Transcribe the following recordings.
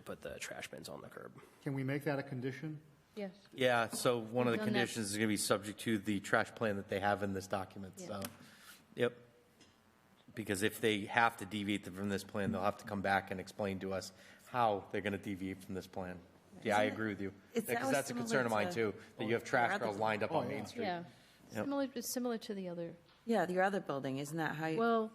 put the trash bins on the curb. Can we make that a condition? Yes. Yeah, so one of We've done the that. conditions is going to be subject to the trash plan that they have in this document, Yeah. so, yep. Because if they have to deviate from this plan, they'll have to come back and explain to us how they're going to deviate from this plan. Yeah, I agree with you. It's Because always that's a concern of similar mine, to- too, that you have trash Rather barrels than- lined up on Main Street. Oh, Yeah. Similar, it's similar to the other, Yeah, your other building, isn't that how you, well,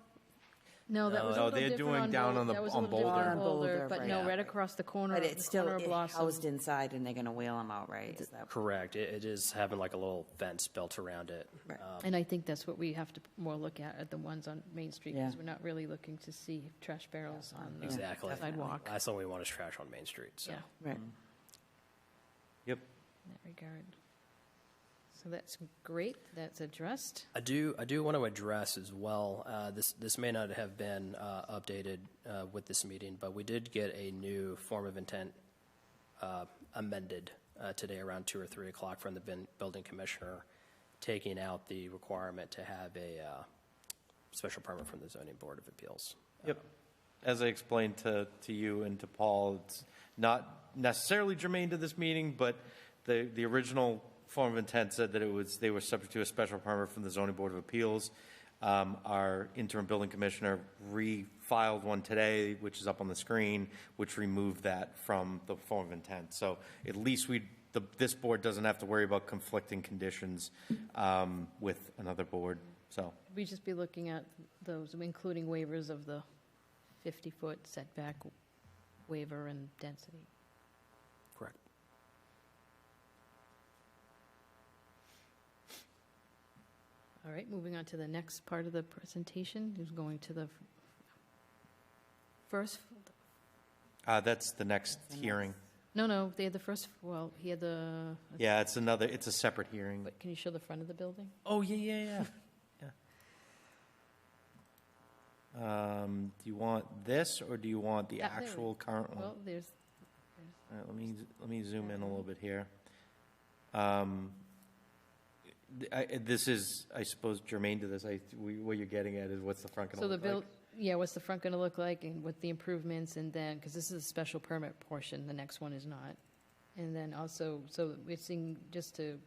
no, that was a No, little they're different doing on down Bol- on the- that was a on little different Boulder. on On Boulder, Boulder, But right. no, Yeah. right across the corner, but it's still corner of it Blossom. housed inside and they're going to wheel them out, right? Is that- Correct. It, it is having like a little fence built around it. Right. And I think that's what we have to more look at, at the ones on Main Street, because Yeah. we're not really looking to see trash barrels on the Exactly. sidewalk. Last thing we want is trash on Main Street, so. Yeah, Right. Yep. in that regard. So that's great, that's addressed. I do, I do want to address as well, uh, this, this may not have been uh, updated uh, with this meeting, but we did get a new form of intent uh, amended uh, today around two or three o'clock from the bin- building commissioner, taking out the requirement to have a uh, special permit from the zoning board of appeals. Yep. As I explained to, to you and to Paul, it's not necessarily germane to this meeting, but the, the original form of intent said that it was, they were subject to a special permit from the zoning board of appeals. Um, our interim building commissioner refiled one today, which is up on the screen, which removed that from the form of intent. So at least we, the, this board doesn't have to worry about conflicting conditions, um, with another board, so. We just be looking at those, including waivers of the 50-foot setback waiver and density. Correct. All right, moving on to the next part of the presentation, who's going to the f- first, Uh, that's the next hearing. no, no, they had the first, well, he had the, Yeah, it's another, it's a separate hearing. but can you show the front of the building? Oh, yeah, yeah, yeah. yeah. Um, do you want this or do you want the Yeah, there we- actual current one? Well, there's, All right, let me, let me zoom in a little bit here. Um, th- I, this is, I suppose germane to this, I, we- what you're getting at is what's the front gonna so the look like? build, yeah, what's the front going to look like and with the improvements and then, because this is a special permit portion, the next one is not. And then also, so we're seeing, just to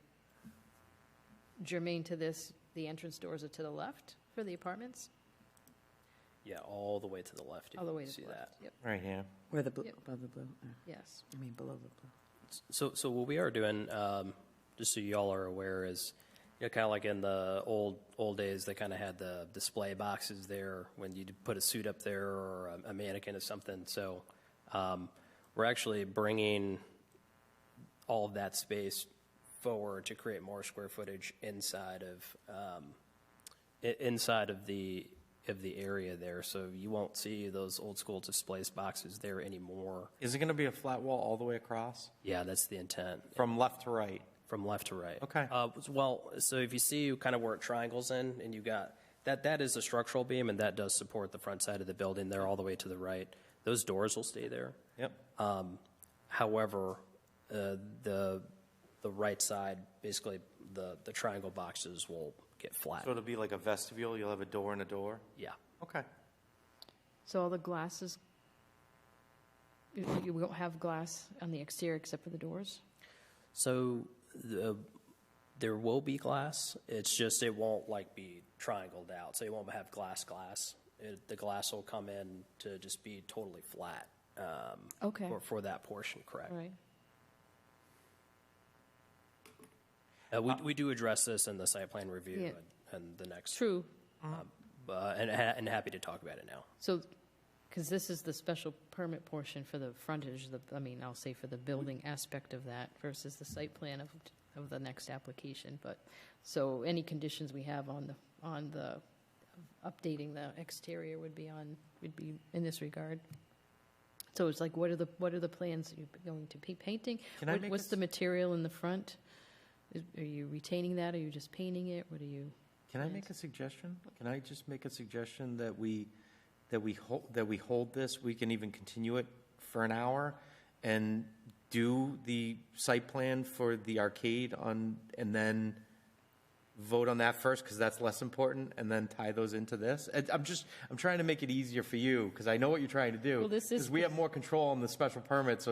germane to this, the entrance doors are to the left for the apartments, Yeah, all the way to the left. if all the you way to see the left. that. Yep, Right here. Where the blue, Yep. above the blue, uh, yes. I mean, below the blue. So, so what we are doing, um, just so y'all are aware, is you know, kind of like in the old old days, they kind of had the display boxes there when you put a suit up there or a, a mannequin or something. So, um, we're actually bringing all of that space forward to create more square footage inside of um, i- inside of the of the area there. So you won't see those old school display boxes there anymore. Is it gonna be a flat wall all the way across, Yeah, that's the intent. from left to right? From left to right. Okay. Uh, well, so if you see kind of where it triangles in, and you got that, that is a structural beam, and that does support the front side of the building there all the way to the right. Those doors will stay there. Yep, Um, however, uh, the the right side, basically the the triangle boxes will get flat. so it'll be like a vestibule, you'll have a door and a door? yeah. Okay. So all the glasses, you you won't have glass on the exterior except for the doors? So the, there will be glass. It's just it won't like be triangled out. So you won't have glass glass. It, the glass will come in to just be totally flat. Um, Okay. For, for that portion, correct. All right. Uh, we, we do address this in the site plan review Yeah. and, and the next. True. Uh, and, ha- and happy to talk about it now. So, because this is the special permit portion for the frontage, the, I mean, I'll say for the building aspect of that versus the site plan of, of the next application, but, so any conditions we have on the, on the, updating the exterior would be on, would be in this regard. So it's like, what are the, what are the plans you're going to be painting? Can I What- make What's a the material in the front? Is- Are you retaining that? Are you just painting it? What are you? Can I make a suggestion? Can I just make a suggestion that we, that we hold, that we hold this, we can even continue it for an hour and do the site plan for the arcade on, and then vote on that first, because that's less important, and then tie those into this? And I'm just, I'm trying to make it easier for you, because I know what you're trying to do. Well, this is- Because we have more control on the special permit, so